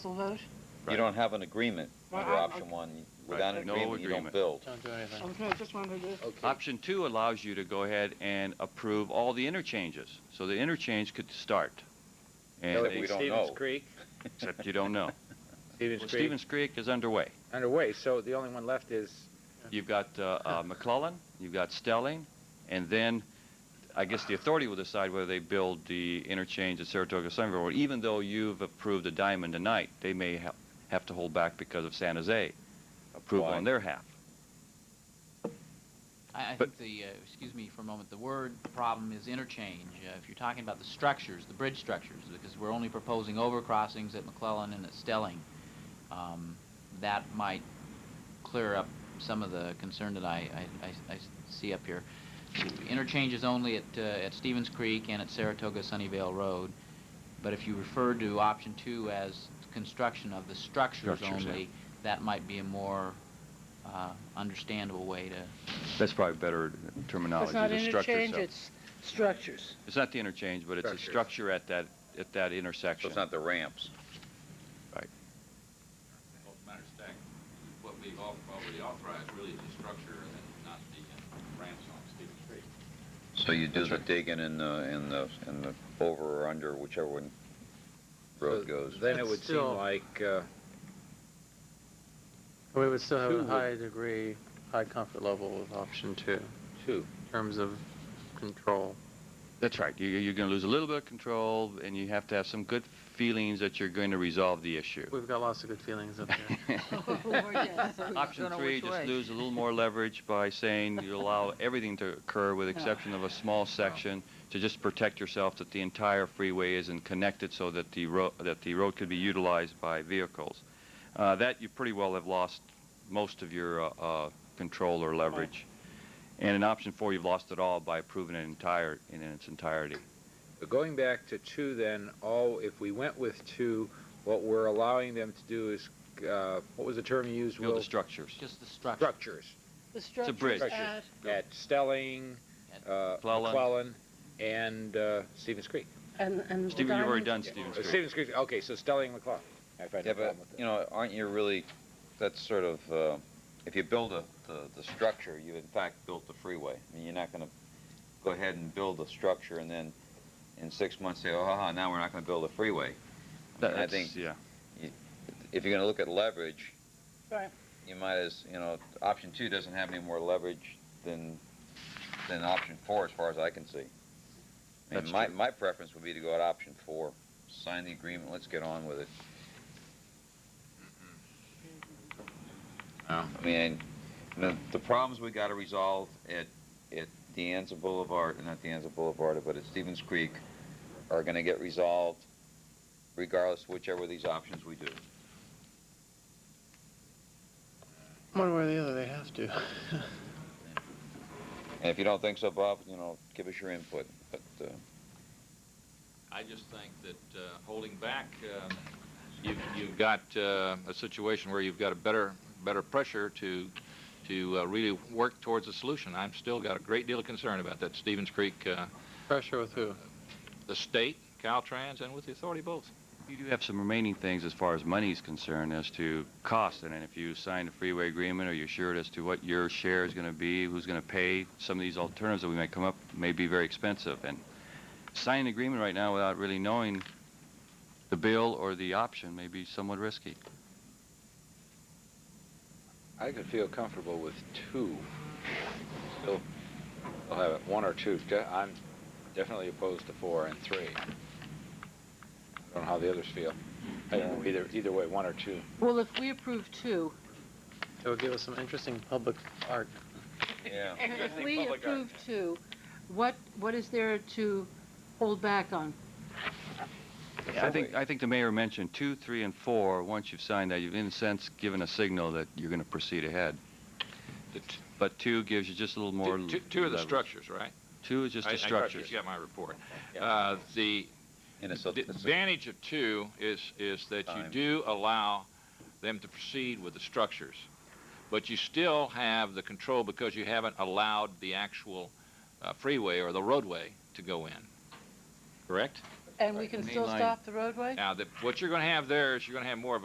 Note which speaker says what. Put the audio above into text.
Speaker 1: Council vote?
Speaker 2: You
Speaker 3: Right.
Speaker 2: don't have an agreement
Speaker 1: Well,
Speaker 2: under
Speaker 1: I-
Speaker 2: option one. Without an
Speaker 3: no
Speaker 2: agreement, you don't
Speaker 3: agreement.
Speaker 2: build.
Speaker 4: Don't do anything.
Speaker 1: Okay, Oh, I just wanted to,
Speaker 3: Option two allows you to go ahead and approve all the interchanges, so the interchange could start. And
Speaker 2: No,
Speaker 3: they-
Speaker 2: we don't
Speaker 4: Stevens
Speaker 2: know.
Speaker 4: Creek,
Speaker 3: except you don't know.
Speaker 5: Stevens Creek
Speaker 3: Well, Stevens Creek is underway.
Speaker 5: underway, so the only one left is,
Speaker 3: You've got uh, uh, McClellan, you've got Stelling, and then I guess the authority will decide whether they build the interchange at Saratoga Somerville. Or even though you've approved a diamond tonight, they may ha- have to hold back because of San Jose approval
Speaker 2: Why?
Speaker 3: on their half.
Speaker 6: I, I
Speaker 3: But-
Speaker 6: think the, uh, excuse me for a moment, the word problem is interchange. Uh, if you're talking about the structures, the bridge structures, because we're only proposing overcrossings at McClellan and at Stelling, um, that might clear up some of the concern that I, I, I, I see up here. Interchanges only at, uh, at Stevens Creek and at Saratoga Sunnyvale Road. But if you refer to option two as construction of the structures,
Speaker 3: Structures, yeah.
Speaker 6: only, that might be a more uh, understandable way to,
Speaker 3: That's probably better
Speaker 7: It's
Speaker 3: terminology.
Speaker 7: not
Speaker 3: the structure
Speaker 7: interchange,
Speaker 3: itself.
Speaker 7: it's structures.
Speaker 3: It's not the interchange, but it's a
Speaker 5: Structures.
Speaker 3: structure at that, at that
Speaker 2: So
Speaker 3: intersection.
Speaker 2: it's not the ramps.
Speaker 8: Well, as a matter of fact, what we've al- already authorized really is the structure and then not the uh, ramps on Stevens Creek.
Speaker 2: So you do the digging and the, and the, and the over or under, whichever one road goes.
Speaker 5: then it
Speaker 4: It's
Speaker 5: would seem
Speaker 4: still-
Speaker 5: like, uh,
Speaker 4: we would still have
Speaker 5: Two
Speaker 4: a
Speaker 5: would-
Speaker 4: high degree, high comfort level with option two in
Speaker 5: two.
Speaker 4: terms of control.
Speaker 3: That's right. You, you're going to lose a little bit of control, and you have to have some good feelings that you're going to resolve the issue.
Speaker 4: We've got lots of good feelings up there.
Speaker 1: oh, yes.
Speaker 3: Option three, just lose a little more leverage by saying you allow everything to occur with exception of a small section to just protect yourself that the entire freeway isn't connected so that the road, that the road could be utilized by vehicles. Uh, that you pretty well have lost most of your, uh, uh, control or leverage. And in option four, you've lost it all by approving it entire, in its entirety.
Speaker 5: But going back to two then, all, if we went with two, what we're allowing them to do is, uh, what was the term you used,
Speaker 3: Build
Speaker 5: Will?
Speaker 3: the structures.
Speaker 6: just the structure.
Speaker 5: Structures
Speaker 7: The structures
Speaker 3: bridge.
Speaker 7: at-
Speaker 5: at Stelling, uh,
Speaker 3: Cleland.
Speaker 5: McClellan, and, uh, Stevens Creek.
Speaker 7: And, and.
Speaker 3: Stephen, you've already
Speaker 7: diamond-
Speaker 3: done Stevens
Speaker 5: Uh,
Speaker 3: Creek.
Speaker 5: Stevens Creek, okay, so Stelling, McClellan. I find
Speaker 2: Yeah,
Speaker 5: no
Speaker 2: but,
Speaker 5: problem with
Speaker 2: you
Speaker 5: that.
Speaker 2: know, aren't you really, that's sort of, uh, if you build a, the, the structure, you in fact built the freeway. I mean, you're not gonna go ahead and build a structure and then in six months say, oh, haha, now we're not gonna build a freeway. I mean, I
Speaker 3: That's-
Speaker 2: think
Speaker 3: Yeah.
Speaker 2: if you're gonna look at leverage,
Speaker 7: Right.
Speaker 2: you might as, you know, option two doesn't have any more leverage than, than option four, as far as I can see. I mean,
Speaker 3: That's
Speaker 2: my,
Speaker 3: true.
Speaker 2: my preference would be to go at option four, sign the agreement, let's get on with it. I mean, the, the problems we gotta resolve at, at the Anza Boulevard, not the Anza Boulevard, but at Stevens Creek are gonna get resolved regardless whichever of these options we do.
Speaker 4: One way or the other, they have to.
Speaker 2: And if you don't think so, Bob, you know, give us your input. But uh,
Speaker 8: I just think that uh, holding back, uh, you've, you've got uh, a situation where you've got a better, better pressure to, to uh, really work towards a solution. I'm still got a great deal of concern about that Stevens Creek, uh,
Speaker 4: Pressure with who?
Speaker 8: the state, Caltrans, and with the authority both.
Speaker 3: You do have some remaining things as far as money is concerned as to cost, and then if you sign a freeway agreement or you're assured as to what your share is going to be, who's going to pay, some of these alternatives that we may come up may be very expensive. And signing an agreement right now without really knowing the bill or the option may be somewhat risky.
Speaker 5: I could feel comfortable with two. Still, I'll have it, one or two. De- I'm definitely opposed to four and three. I don't know how the others feel. I don't know either, either way, one or two.
Speaker 1: Well, if we approve two,
Speaker 4: It would give us some interesting public art.
Speaker 2: yeah,
Speaker 1: if we approve two, what, what is there to hold back on?
Speaker 3: I think I think the mayor mentioned two, three, and four. Once you've signed that, you've in a sense given a signal that you're going to proceed ahead.
Speaker 8: The t-
Speaker 3: But two gives you just a little more.
Speaker 8: two- two- Two of the
Speaker 3: leverage.
Speaker 8: structures, right?
Speaker 3: Two is just
Speaker 8: I-
Speaker 3: the
Speaker 8: I-
Speaker 3: structures.
Speaker 8: You got my report. Uh, The,
Speaker 2: and it's a,
Speaker 8: The
Speaker 2: it's a-
Speaker 8: advantage of two is, is that you
Speaker 2: Time.
Speaker 8: do allow them to proceed with the structures, but you still have the control because you haven't allowed the actual uh, freeway or the roadway to go in, correct?
Speaker 9: And we
Speaker 1: Right,
Speaker 9: can
Speaker 1: main
Speaker 9: still
Speaker 1: line.
Speaker 9: stop the roadway?
Speaker 1: Now, the- what you're going to have there is you're going to have more of a